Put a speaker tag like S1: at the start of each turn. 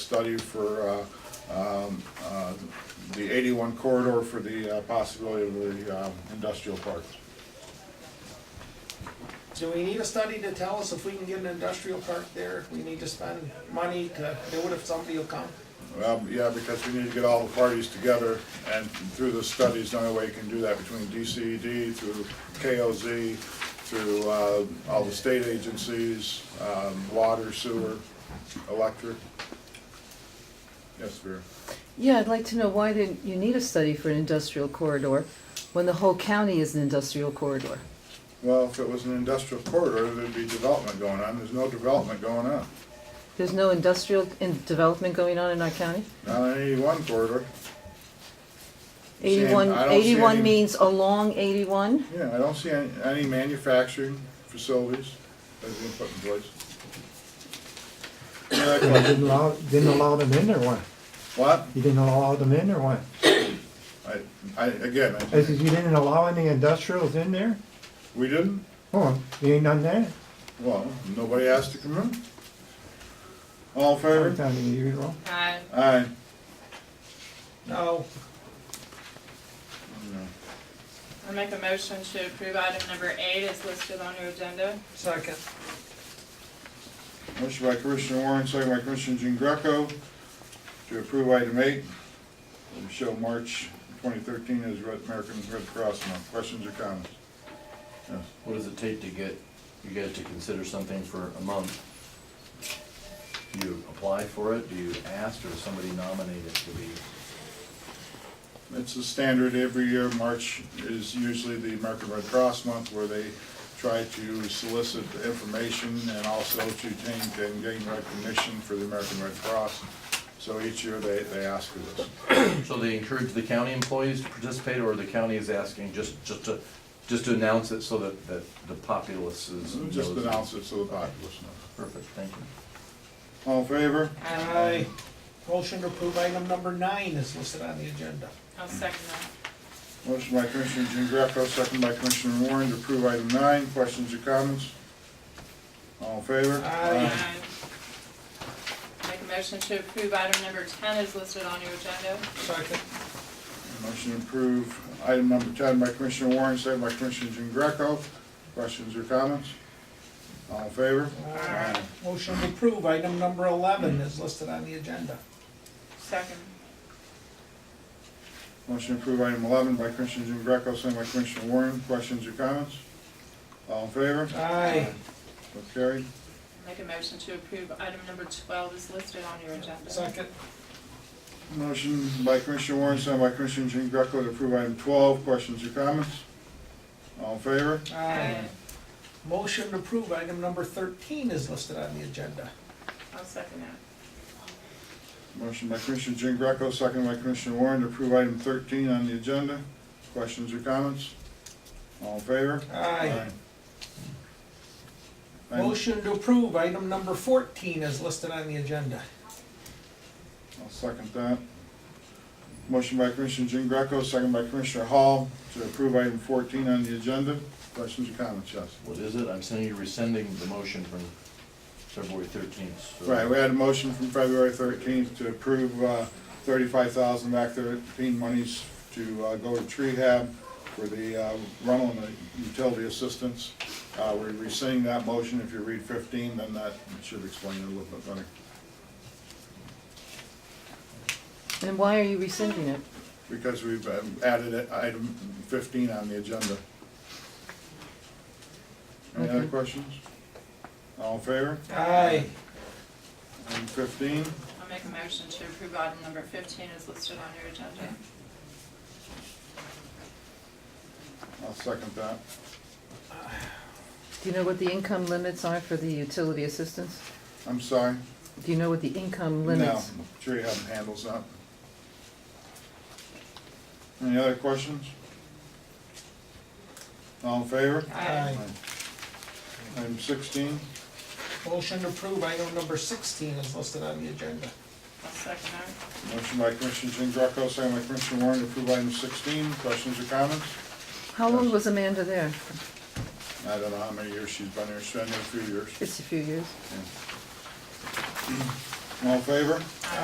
S1: study for uh, um, uh, the 81 corridor for the uh, possibility of the um, industrial park.
S2: Do we need a study to tell us if we can get an industrial park there? If We need to spend money to do it if somebody will come?
S1: Well, Um, yeah, because we need to get all the parties together, and through the studies, the only way you can do that between DCED, through KOZ, through uh, all the state agencies, um, water, sewer, electric. Yes, Vera?
S3: Yeah, I'd like to know why then you need a study for an industrial corridor when the whole county is an industrial corridor.
S1: Well, if it was an industrial corridor, there'd be development going on. There's no development going on.
S3: There's no industrial in development going on in our county?
S1: Not in eighty-one corridor.
S3: Eighty-one,
S1: I don't see any-
S3: eighty-one means along eighty-one?
S1: Yeah, I don't see any, any manufacturing facilities that's been put in place. Any other
S4: You
S1: questions?
S4: Didn't allow, didn't allow them in there, what?
S1: What?
S4: You didn't allow them in there, what?
S1: I, I, again, I
S4: I says, you didn't allow any industrials in there?
S1: we didn't,
S4: Oh, you ain't done that?
S1: well, nobody asked to come in. All in
S4: Every
S1: favor?
S4: time you, you know,
S5: Aye.
S1: Aye.
S2: No,
S5: I make a motion to approve item number eight is listed on your agenda.
S2: second.
S1: Motion by Commissioner Warren, second by Commissioner Jean Greco to approve item eight. We show March twenty thirteen as Red, American Red Cross Month. Questions or comments? Yes.
S6: What does it take to get you guys to consider something for a month? Do you apply for it, do you ask, or does somebody nominate it to be?
S1: It's a standard every year. March is usually the American Red Cross Month where they try to solicit information and also to gain, and gain recognition for the American Red Cross. So each year they, they ask for this.
S6: So they encourage the county employees to participate, or the county is asking just, just to, just to announce it so that, that the populace is.
S1: Just
S6: knows?
S1: announce it so the populace knows.
S6: Perfect, thank you.
S1: All in favor?
S2: Aye. Motion to approve item number nine is listed on the agenda.
S5: I'll second that.
S1: Motion by Commissioner Jean Greco, second by Commissioner Warren to approve item nine. Questions or comments? All in favor?
S2: Aye.
S5: Aye. Uh, Make a motion to approve item number ten is listed on your agenda.
S2: Second.
S1: Motion to approve item number ten by Commissioner Warren, second by Commissioner Jean Greco. Questions or comments? All in favor?
S2: Aye. Motion to approve item number eleven is listed on the agenda.
S5: Second.
S1: Motion to approve item eleven by Commissioner Jean Greco, second by Commissioner Warren. Questions or comments? All in favor?
S2: Aye.
S1: So carried.
S5: Make a motion to approve item number twelve is listed on your agenda.
S2: Second.
S1: Motion by Commissioner Warren, second by Commissioner Jean Greco to approve item twelve. Questions or comments? All in favor?
S5: Aye.
S2: Motion to approve item number thirteen is listed on the agenda.
S5: I'll second that.
S1: Motion by Commissioner Jean Greco, second by Commissioner Warren to approve item thirteen on the agenda. Questions or comments? All in favor?
S2: Aye.
S1: Aye.
S2: Motion to approve item number fourteen is listed on the agenda.
S1: I'll second that. Motion by Commissioner Jean Greco, second by Commissioner Hall to approve item fourteen on the agenda. Questions or comments, yes?
S6: What is it? I'm sending you rescinding the motion from February thirteenth.
S1: Right, we had a motion from February thirteenth to approve uh, thirty-five thousand back thirteen monies to uh, go to tree hab for the uh, rental and the utility assistance. Uh, We're rescinding that motion. If you read fifteen, then that should explain it a little bit better.
S3: And why are you rescinding it?
S1: Because we've um, added it- item fifteen on the agenda. Any other
S3: Okay.
S1: questions? All in favor?
S2: Aye.
S1: Item fifteen,
S5: I'll make a motion to approve item number fifteen is listed on your agenda.
S1: I'll second that.
S3: Do you know what the income limits are for the utility assistance?
S1: I'm sorry.
S3: Do you know what the income
S1: No,
S3: limits?
S1: tree hub handles that. Any other questions? All in favor?
S2: Aye.
S1: Item sixteen,
S2: Motion to approve item number sixteen is listed on the agenda.
S5: I'll second that.
S1: motion by Commissioner Jean Greco, second by Commissioner Warren to approve item sixteen. Questions or comments?
S3: How long was Amanda there?
S1: I don't know how many years she's been here, she's been here a few years.
S3: It's a few years.
S1: All in favor?